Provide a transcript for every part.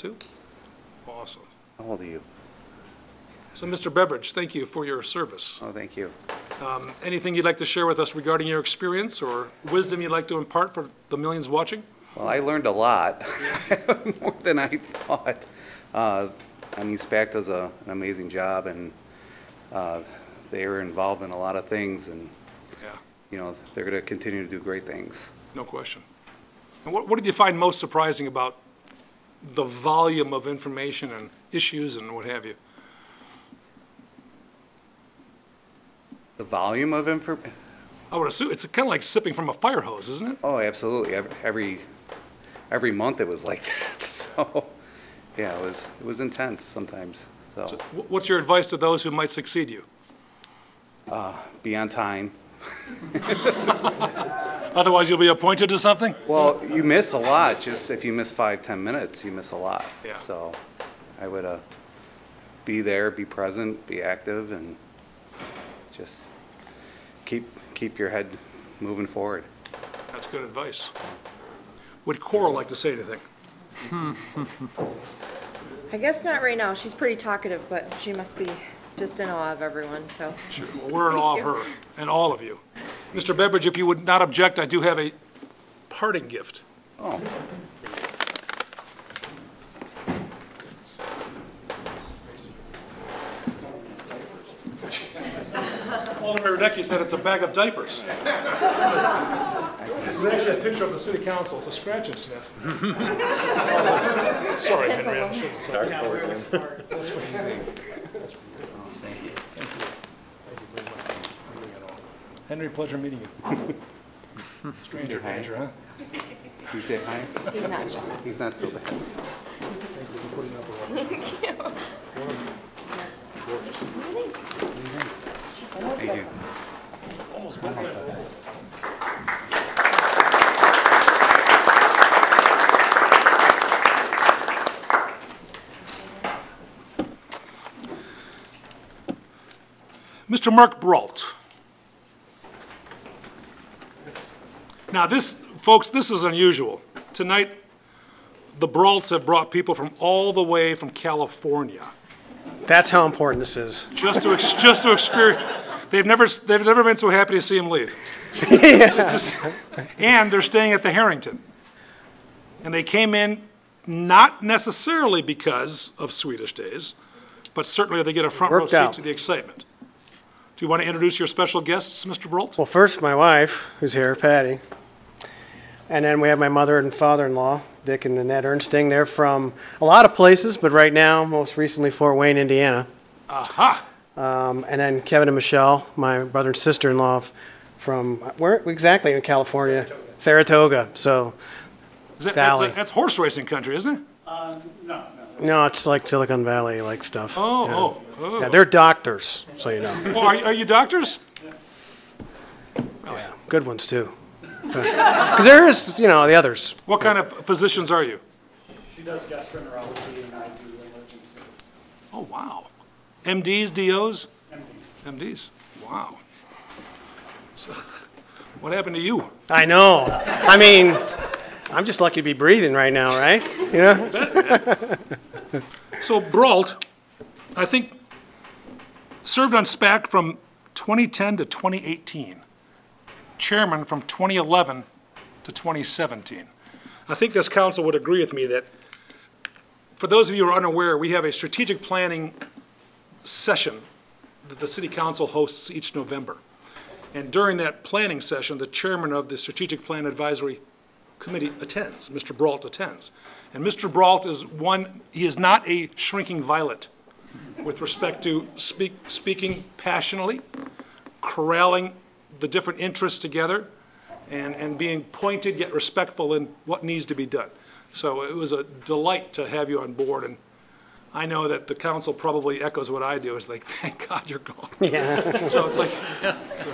Two? Awesome. How old are you? So, Mr. Beveridge, thank you for your service. Oh, thank you. Um, Anything you'd like to share with us regarding your experience or wisdom you'd like to impart for the millions watching? Well, I learned a lot, more than I thought. Uh, I mean, SPAC does a- an amazing job, and uh, they are involved in a lot of things, and, Yeah, you know, they're going to continue to do great things. no question. And what, what did you find most surprising about the volume of information and issues and what have you? The volume of information. I would assume, it's kind of like sipping from a fire hose, isn't it? oh, absolutely, Ev- every, every month it was like that, so, yeah, it was, it was intense sometimes, so, So wh- What's your advice to those who might succeed you? be on time. Otherwise, you'll be appointed to something? Well, you miss a lot, just if you miss five, 10 minutes, you miss a lot. Yeah. So I would uh, be there, be present, be active, and just keep, keep your head moving forward. That's good advice. Would Coral like to say anything? I guess not right now. She's pretty talkative, but she must be just in awe of everyone, so. Well, We're in awe of her and all of you. Mr. Beveridge, if you would not object, I do have a parting gift. Oh, Alderman Radecki said it's a bag of diapers. This is actually a picture of the city council. It's a scratch and sniff. Sorry, Henry, I shouldn't say. that. Henry, pleasure meeting you. Stranger danger, huh? you say hi? He's not shy. He's not so bad. Thank you. Almost bedtime. Mr. Mark Brault. Now, this, folks, this is unusual. Tonight, the Braults have brought people from all the way from California That's how important this is. just to, ex- just to experience, they've never, they've never been so happy to see him leave. It's just- And they're staying at the Harrington. And they came in not necessarily because of Swedish Days, but certainly they get a front row Worked seat out. to the excitement. Do you want to introduce your special guests, Mr. Brolt? Well, first, my wife, who's here, Patty. And then we have my mother and father in law, Dick and Annette Ernsting. They're from a lot of places, but right now, most recently, Fort Wayne, Indiana. Aha! Um, and then Kevin and Michelle, my brother and sister in law from where exactly in California? Saratoga. So, Is that- That's, Valley. that's horse racing country, isn't it? no, it's like Silicon Valley like stuff. Yeah. Oh, oh, oh. Yeah, they're doctors, so you know. Oh, Are, are you doctors? Good ones, too. Because there is, you know, the others. What kind of physicians are you? She does gastroenterology and I do emergency. Oh, wow. MDs, DOs? MDs. wow. So, What happened to you? I know. I mean, I'm just lucky to be breathing right now, right? You know? So Brault, I think, served on SPAC from 2010 to 2018, chairman from 2011 to 2017. I think this council would agree with me that, for those of you who are unaware, we have a strategic planning session that the city council hosts each November. And during that planning session, the chairman of the Strategic Plan Advisory committee attends, Mr. Brault attends. And Mr. Brault is one, he is not a shrinking violet with respect to speak, speaking passionately, corralling the different interests together, and, and being pointed yet respectful in what needs to be done. So it was a delight to have you on board, and I know that the council probably echoes what I do, is like, thank God you're gone. So it's like, so.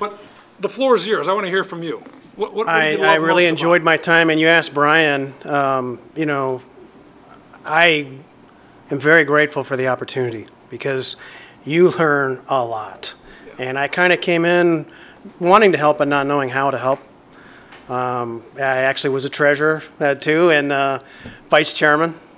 But the floor is yours, I want to hear from you. What, what what did you I, I love most really about it? enjoyed my time, and you asked Brian, um, you know, I am very grateful for the opportunity because you learn a lot. And I kind of came in wanting to help but not knowing how to help. Um, I actually was a treasurer, uh, too, and uh, vice chairman